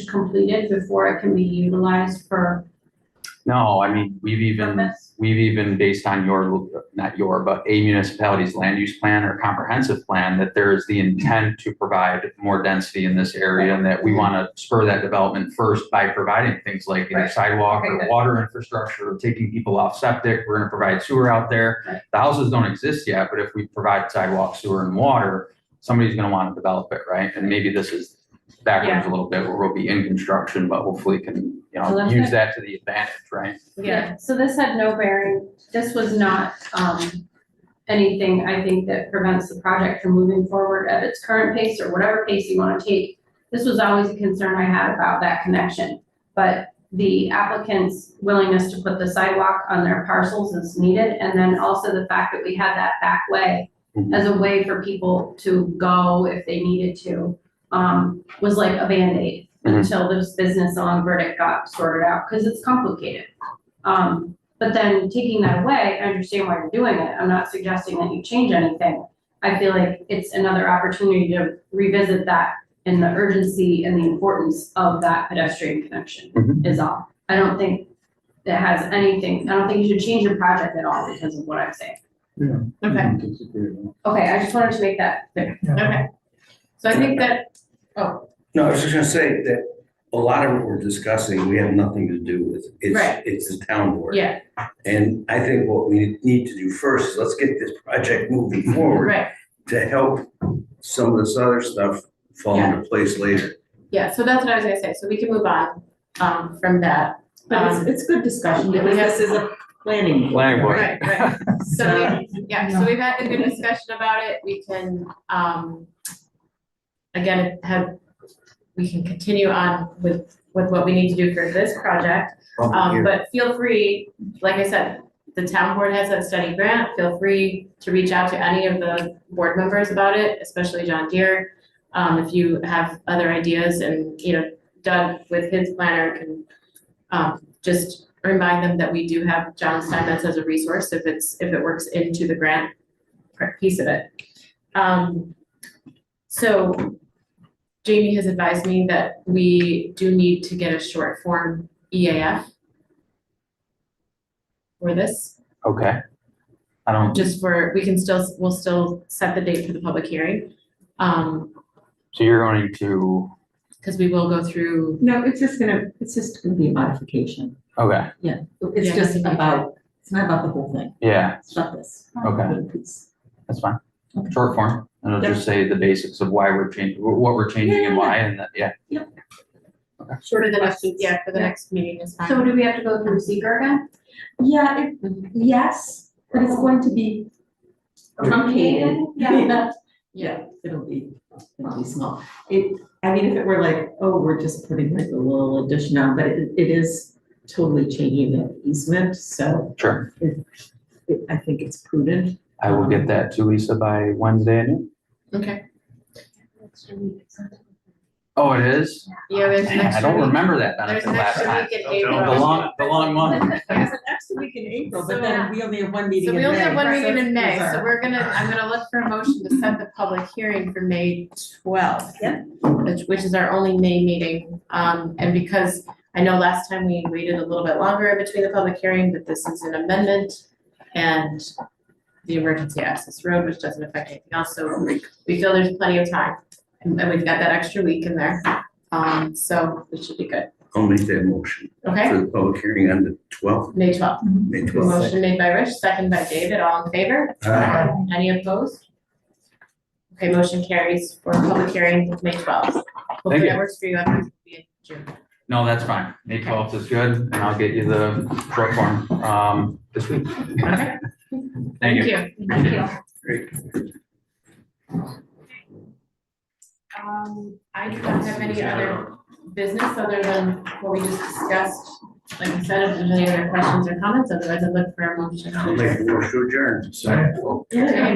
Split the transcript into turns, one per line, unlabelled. is completed before it can be utilized for
No, I mean, we've even,
purpose?
we've even based on your, not your, but a municipality's land use plan or comprehensive plan, that there is the intent to provide more density in this area and that we want to spur that development first by providing things like either
Right.
sidewalk
Okay,
or
good.
water infrastructure, or taking people off septic. We're going to provide sewer out
Right.
there. The houses don't exist yet, but if we provide sidewalk, sewer and water, somebody's going to want to develop it, right? And maybe this is backwards a little bit where we'll be in construction, but hopefully can, you
Well,
know,
that's
use
it.
that to the advantage, right?
Yeah, so this had no bearing, this was not, um, anything, I think, that prevents the project from moving forward at its current pace or whatever pace you wanna take. This was always a concern I had about that connection, but the applicant's willingness to put the sidewalk on their parcels as needed, and then also the fact that we had that back way
Mhm.
as a way for people to go if they needed to, um, was like a Band-Aid
Mhm.
until this business on verdict got sorted out, because it's complicated. Um, but then taking that away, I understand why you're doing it. I'm not suggesting that you change anything. I feel like it's another opportunity to revisit that and the urgency and the importance of that pedestrian connection
Mhm.
is all. I don't think that has anything, I don't think you should change your project at all because of what I'm saying.
Okay,
Mm-hmm.
Okay, I just wanted to make that clear.
okay.
So I think that,
No, I was just gonna say that a lot of what we're discussing, we have nothing to do with. It's,
Right.
it's the town board.
yeah,
And I think what we need to do first is let's get this project moving forward
right,
to help some of this other stuff fall into place later.
Yeah, so that's what I was gonna say, so we can move on, um, from that.
But it's,
Um,
it's good discussion, because this uh, is a planning. board.
Planning board.
Right, right. So, we- yeah, so we've had a good discussion about it, we can, um, again, have, we can continue on with, with what we need to do for this project. Um, but feel free, like I said, the town board has that study grant, feel free to reach out to any of the board members about it, especially John Deere. Um, if you have other ideas and, you know, Doug with his planner can, um, just remind them that we do have John Steinmetz as a resource if it's, if it works into the grant part- piece of it. Um, so Jamie has advised me that we do need to get a short form E EAF for this,
Okay. I don't,
just for, we can still, we'll still set the date for the public hearing. Um,
so you're going to,
because we will go through,
No, it's just gonna, it's just gonna be a modification.
okay,
It's
Yeah,
just
I think we
about, it's not about the whole thing,
yeah,
it's not this.
okay,
It's-
that's fine.
Okay.
Short form, and it'll just say the basics of why we're changing, what we're changing and why, and that, yeah.
shorter than us, yeah, for the next meeting is fine.
so do we have to go through seeker again?
Yeah, it, yes, but it's going to be truncated.
Yeah.
Yeah, it'll be, it'll be small. It, I mean, if it were like, oh, we're just putting like a little addition on, but it, it is totally changing the easement, so
Sure,
it- I think it's prudent.
I will get that to Lisa by Wednesday. at noon.
Okay,
Oh, it is?
yeah, there's
Man,
next
I don't
week,
remember that
there's
benefit last time.
next week in
The
April.
long, the long month.
There's
an extra week in April,
but then
we only have one
So we only have one meeting in May, so we're gonna, I'm gonna look for a motion to set the public hearing for May twelfth.
Yeah.
Which, which is our only May meeting, um, and because I know last time we waited a little bit longer in between the public hearing, but this is an amendment. And the emergency access road, which doesn't affect anything else, so we feel there's plenty of time. And and we've got that extra week in there, um, so it should be good,
I'll make that motion
okay?
for the public hearing on the twelfth,
May twelfth,
May twelfth.
motion made by Rich, second by David, all in favor? Any opposed? Okay, motion carries for public hearing, May twelfth. Hopefully
Thank you.
that works for you, otherwise it'll be in June.
No, that's fine. May twelfth is good, and I'll get you the short form, um, this week.
Okay.
Thank you.
Thank you.
Um, I do not have any other business other than what we just discussed. Like I said, if there's any other questions or comments, otherwise I'd look for a motion.
I'll
to
make
adjourn.
the motion to adjourn.
Okay.